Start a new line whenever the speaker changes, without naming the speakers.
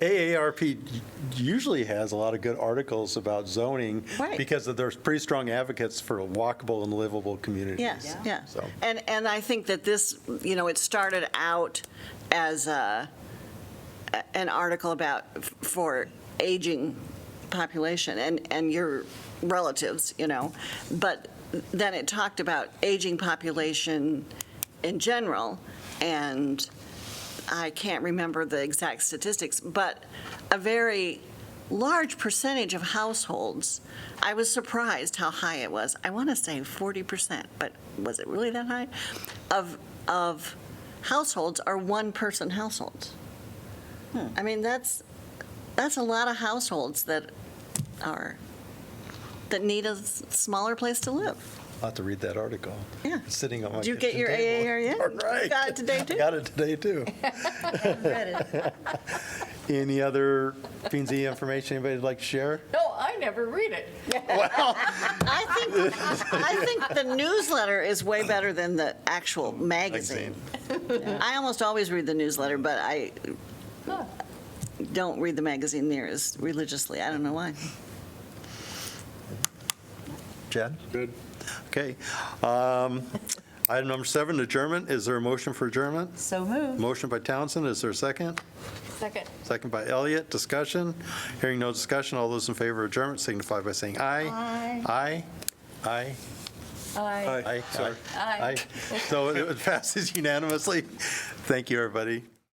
AARP usually has a lot of good articles about zoning
Right.
because of- there's pretty strong advocates for walkable and livable communities.
Yes, yeah.
So-
And, and I think that this, you know, it started out as a, a- an article about, f- for aging population and, and your relatives, you know, but then it talked about aging population in general, and I can't remember the exact statistics, but a very large percentage of households, I was surprised how high it was. I want to say 40%, but was it really that high? Of, of households are one-person households. I mean, that's, that's a lot of households that are, that need a s- smaller place to live.
I'll have to read that article.
Yeah.
It's Sitting on my
Did you get
kitchen
your
table.
AARP yet?
All right.
You got it today,
I
too?
Got it today, too.
No,
Any other P and Z information anybody would like to share?
I never read it.
I think, I think the newsletter is way better than the actual magazine. I almost always read the newsletter, but I don't read the magazine near as religiously. I don't know why.
Chad? Good. Okay. Um, Item number seven, adjournment. Is there a motion for adjournment?
So moved.
Motion by Townsend. Is there a second?
Second.
Second by Elliott. Discussion? Hearing no discussion. All those in favor of adjournment signify by saying aye. Aye. Aye. Aye.
Aye.
Aye. Sorry.
Aye.
Aye. So it passes unanimously. Thank you, everybody.